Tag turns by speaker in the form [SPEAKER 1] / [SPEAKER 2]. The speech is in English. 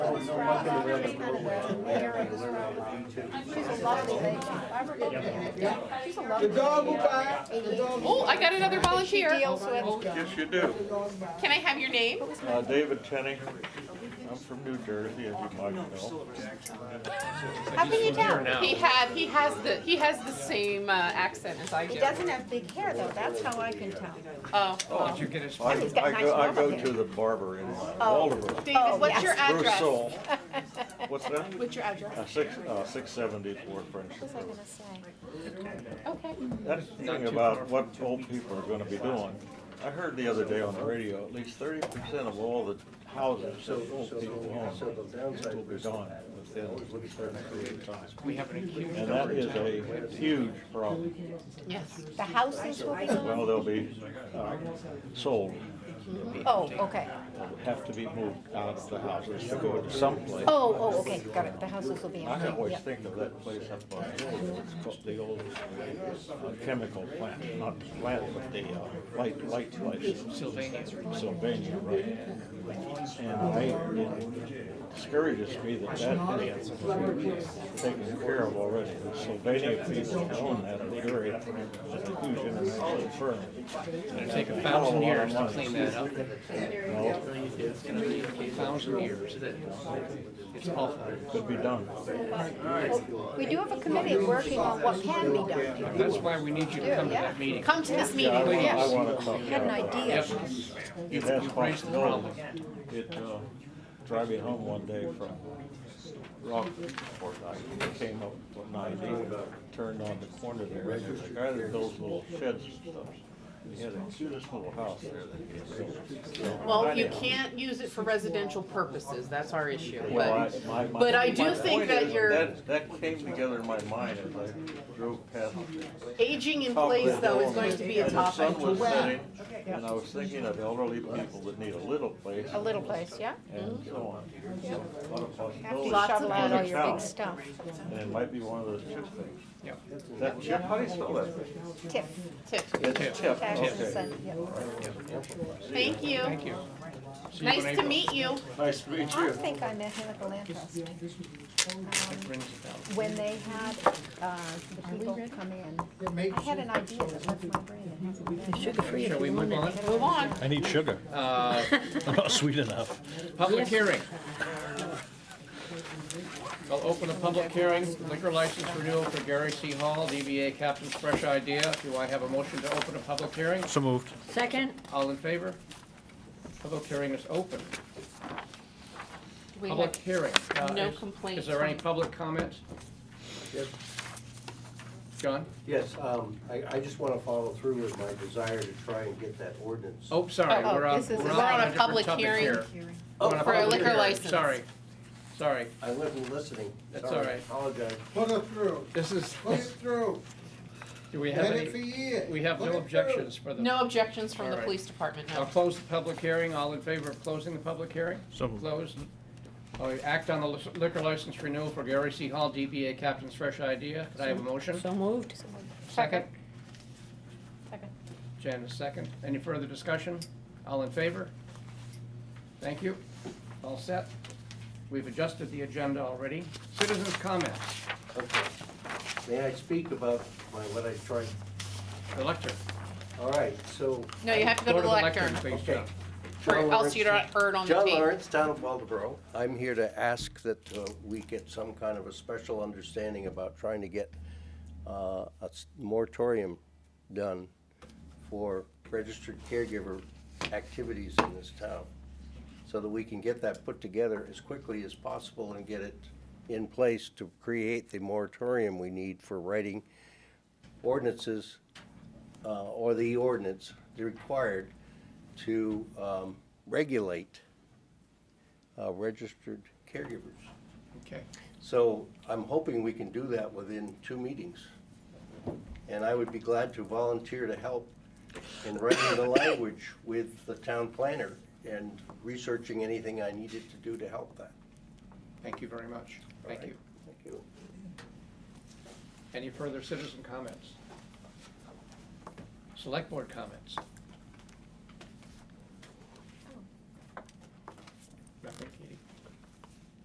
[SPEAKER 1] I've been around the world.
[SPEAKER 2] She's a lovely lady. I forget her name. She's a
[SPEAKER 3] The
[SPEAKER 2] lovely
[SPEAKER 3] dog will
[SPEAKER 2] lady.
[SPEAKER 3] buy, the dog will
[SPEAKER 4] Oh, I got another
[SPEAKER 2] She
[SPEAKER 4] volunteer.
[SPEAKER 2] deals with,
[SPEAKER 1] Yes, you do.
[SPEAKER 4] Can I have your name?
[SPEAKER 1] Uh, David Tenney. I'm from New Jersey, as you might know.
[SPEAKER 2] how can you tell?
[SPEAKER 4] He had, he has the, he has the same uh, accent as I do.
[SPEAKER 2] He doesn't have big hair though, that's how I can tell.
[SPEAKER 4] Oh, well.
[SPEAKER 1] I,
[SPEAKER 2] he's got
[SPEAKER 1] I
[SPEAKER 2] nice
[SPEAKER 1] go, I
[SPEAKER 2] normal
[SPEAKER 1] go
[SPEAKER 2] hair.
[SPEAKER 1] to the barber in Waldeboro.
[SPEAKER 2] Oh,
[SPEAKER 4] David, what's
[SPEAKER 2] yes.
[SPEAKER 4] your
[SPEAKER 1] Bruce
[SPEAKER 4] address?
[SPEAKER 1] Soul. What's that?
[SPEAKER 4] What's your address?
[SPEAKER 1] Uh, six, uh, six seventy-four French.
[SPEAKER 2] What was I gonna say?
[SPEAKER 5] Uh.
[SPEAKER 4] Okay.
[SPEAKER 1] That's the thing about what old people are gonna be doing. I heard the other day on the radio, at least thirty percent of all the houses that old people own will be gone within a certain period of time.
[SPEAKER 5] We have an acute.
[SPEAKER 1] And that is a huge problem.
[SPEAKER 4] Yes.
[SPEAKER 2] The houses will be gone?
[SPEAKER 1] Well, they'll be, uh, sold,
[SPEAKER 2] Oh, okay.
[SPEAKER 1] They'll have to be moved out of the houses to go to someplace.
[SPEAKER 2] Oh, oh, okay, got it, the houses will be
[SPEAKER 1] I
[SPEAKER 2] empty,
[SPEAKER 1] always
[SPEAKER 2] yeah.
[SPEAKER 1] think of that place up on, it's called the old uh, chemical plant, not plant, but the uh, light, light, light. Sylvania. Sylvania, right. And they, it discourages me that that is taken care of already. The Sylvania people own that area, it's a huge international firm.
[SPEAKER 5] It'll take a thousand years to clean that up.
[SPEAKER 1] No,
[SPEAKER 5] It's gonna be a thousand years. It's awful.
[SPEAKER 1] could be done.
[SPEAKER 2] We do have a committee working on what can be done here.
[SPEAKER 5] That's why we need you to come to that meeting.
[SPEAKER 4] Come to this
[SPEAKER 1] Yeah, I
[SPEAKER 4] meeting,
[SPEAKER 1] want, I
[SPEAKER 4] yes.
[SPEAKER 1] want to talk.
[SPEAKER 2] Had an idea.
[SPEAKER 5] Yep.
[SPEAKER 1] It
[SPEAKER 5] You've
[SPEAKER 1] has
[SPEAKER 5] you've raised the problem.
[SPEAKER 1] possibilities. It, uh, driving home one day from Rockport, I came up from ninety, turned on the corner there, and there's a guy that builds little sheds and stuff. He had a cutest little house there that he had built.
[SPEAKER 4] Well, you can't use it for residential purposes, that's our issue,
[SPEAKER 1] Well,
[SPEAKER 4] but.
[SPEAKER 1] I- my- my-
[SPEAKER 4] but I do
[SPEAKER 1] my
[SPEAKER 4] think
[SPEAKER 1] point
[SPEAKER 4] that
[SPEAKER 1] is,
[SPEAKER 4] you're-
[SPEAKER 1] That, that came together in my mind as I drove past.
[SPEAKER 4] Aging in place, though, is going to be a
[SPEAKER 1] And the
[SPEAKER 4] topic.
[SPEAKER 1] sun was setting, and I was thinking of elderly people that need a little place.
[SPEAKER 2] A little place, yeah?
[SPEAKER 1] and so on. So, a lot of
[SPEAKER 2] After you
[SPEAKER 1] possibilities.
[SPEAKER 2] shovel out all
[SPEAKER 1] And
[SPEAKER 2] your
[SPEAKER 1] account.
[SPEAKER 2] big stuff.
[SPEAKER 1] And it might be one of those chip things.
[SPEAKER 5] Yep.
[SPEAKER 1] Is that chip, how do you spell that?
[SPEAKER 2] Tiff,
[SPEAKER 4] Tip.
[SPEAKER 1] It's chip,
[SPEAKER 2] taxes
[SPEAKER 1] okay.
[SPEAKER 2] and, yeah.
[SPEAKER 4] Thank you.
[SPEAKER 5] Thank you. See you in
[SPEAKER 4] Nice to
[SPEAKER 5] April.
[SPEAKER 4] meet you.
[SPEAKER 1] Nice to meet
[SPEAKER 2] I
[SPEAKER 1] you.
[SPEAKER 2] think I met him at the land trust.
[SPEAKER 5] That rings a bell.
[SPEAKER 2] when they had, uh, the people come in, I had an idea that left my brain. It hasn't been.
[SPEAKER 5] Shall we move on?
[SPEAKER 4] Move on.
[SPEAKER 6] I need sugar.
[SPEAKER 5] Uh,
[SPEAKER 6] I'm not Oh, sweet enough.
[SPEAKER 5] Public hearing. I'll open a public hearing, liquor license renewal for Gary C. Hall, DBA Captain's Fresh Idea. Do I have a motion to open a public hearing?
[SPEAKER 6] So moved.
[SPEAKER 7] Second,
[SPEAKER 5] All in favor? Public hearing is open.
[SPEAKER 4] We
[SPEAKER 5] Public
[SPEAKER 4] have
[SPEAKER 5] hearing. Uh,
[SPEAKER 4] no
[SPEAKER 5] is-
[SPEAKER 4] complaints.
[SPEAKER 5] Is there any
[SPEAKER 4] from-
[SPEAKER 5] public comments?
[SPEAKER 8] Yes.
[SPEAKER 5] John?
[SPEAKER 8] Yes, um, I, I just wanna follow through with my desire to try and get that ordinance.
[SPEAKER 5] Oh, sorry,
[SPEAKER 4] Oh,
[SPEAKER 5] we're on,
[SPEAKER 4] this is-
[SPEAKER 5] we're
[SPEAKER 4] we're
[SPEAKER 5] on
[SPEAKER 4] on
[SPEAKER 5] a
[SPEAKER 4] a
[SPEAKER 5] different
[SPEAKER 4] public
[SPEAKER 5] topic
[SPEAKER 4] hearing.
[SPEAKER 5] here. We're on a
[SPEAKER 4] Oh, For a
[SPEAKER 5] public
[SPEAKER 4] liquor
[SPEAKER 5] hearing.
[SPEAKER 4] license.
[SPEAKER 5] Sorry, sorry.
[SPEAKER 8] I wasn't listening.
[SPEAKER 5] That's
[SPEAKER 8] Sorry.
[SPEAKER 5] all right.
[SPEAKER 8] Apologize.
[SPEAKER 3] put it through,
[SPEAKER 5] This is,
[SPEAKER 3] put it through,
[SPEAKER 5] do we have
[SPEAKER 3] let it for
[SPEAKER 5] any,
[SPEAKER 3] years.
[SPEAKER 5] we have
[SPEAKER 3] Put it
[SPEAKER 5] no
[SPEAKER 3] through.
[SPEAKER 5] objections for the.
[SPEAKER 4] No objections from the
[SPEAKER 5] All right.
[SPEAKER 4] police department,
[SPEAKER 5] I'll
[SPEAKER 4] no.
[SPEAKER 5] close the public hearing. All in favor of closing the public hearing?
[SPEAKER 6] So moved.
[SPEAKER 5] Closed. Uh, Act on the liquor license renewal for Gary C. Hall, DBA Captain's Fresh Idea. Could I have a motion?
[SPEAKER 7] so moved.
[SPEAKER 5] Second?
[SPEAKER 2] Second.
[SPEAKER 5] Janice, second. Any further discussion? All in favor? Thank you. All set. We've adjusted the agenda already. Citizens' comments.
[SPEAKER 8] Okay. May I speak about my, what I tried?
[SPEAKER 5] The lecture.
[SPEAKER 8] All right, so.
[SPEAKER 4] No, you have to go to the lectern.
[SPEAKER 5] Please,
[SPEAKER 8] Okay.
[SPEAKER 5] John.
[SPEAKER 4] Or
[SPEAKER 8] John
[SPEAKER 4] else you're
[SPEAKER 8] Lawrence.
[SPEAKER 4] not heard on the
[SPEAKER 8] John
[SPEAKER 4] tape.
[SPEAKER 8] Lawrence, town of Waldeboro. I'm here to ask that uh, we get some kind of a special understanding about trying to get uh, a s- moratorium done for registered caregiver activities in this town, so that we can get that put together as quickly as possible and get it in place to create the moratorium we need for writing ordinances uh, or the ordinance required to um, regulate uh, registered caregivers.
[SPEAKER 5] Okay.
[SPEAKER 8] So I'm hoping we can do that within two meetings. And I would be glad to volunteer to help in writing the language with the town planner and researching anything I needed to do to help that.
[SPEAKER 5] Thank you very much. Thank you.
[SPEAKER 8] Thank you.
[SPEAKER 5] Any further citizen comments? Select board comments? Nothing?